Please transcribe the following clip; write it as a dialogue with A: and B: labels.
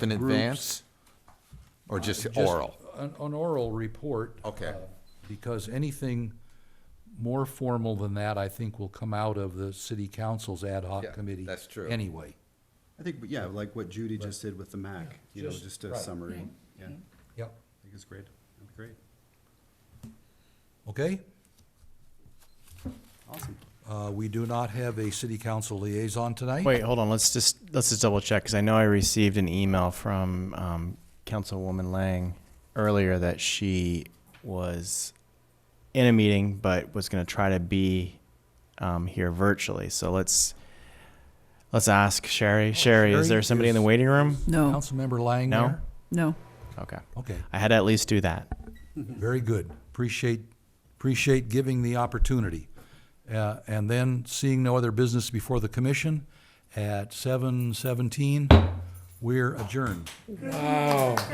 A: in advance? Or just oral?
B: An, an oral report.
A: Okay.
B: uh, Because anything more formal than that, I think, will come out of the city council's ad hoc
A: Yeah,
B: committee.
A: that's true.
B: Anyway.
C: I think, yeah, like what Judy just did with the MAC, you know,
B: Just-
C: just a
B: right.
C: summary. Yeah, I
B: Yep.
C: think it's great. That'd be great.
B: Okay?
C: Awesome.
B: Uh, we do not have a city council liaison tonight.
D: Wait, hold on. Let's just let's just double check because I know I received an email from um, Councilwoman Lang earlier that she was in a meeting but was going to try to be um, here virtually. So let's let's ask Sherry. Sherry, is
B: Oh, Sherry
D: there somebody in the
B: is-
D: waiting room?
E: No,
B: Councilmember Lang
D: No?
B: there?
E: no.
D: Okay,
B: Okay,
D: I had to at least do that.
B: very good. Appreciate, appreciate giving the opportunity. Uh, and then seeing no other business before the commission at seven seventeen, we're adjourned.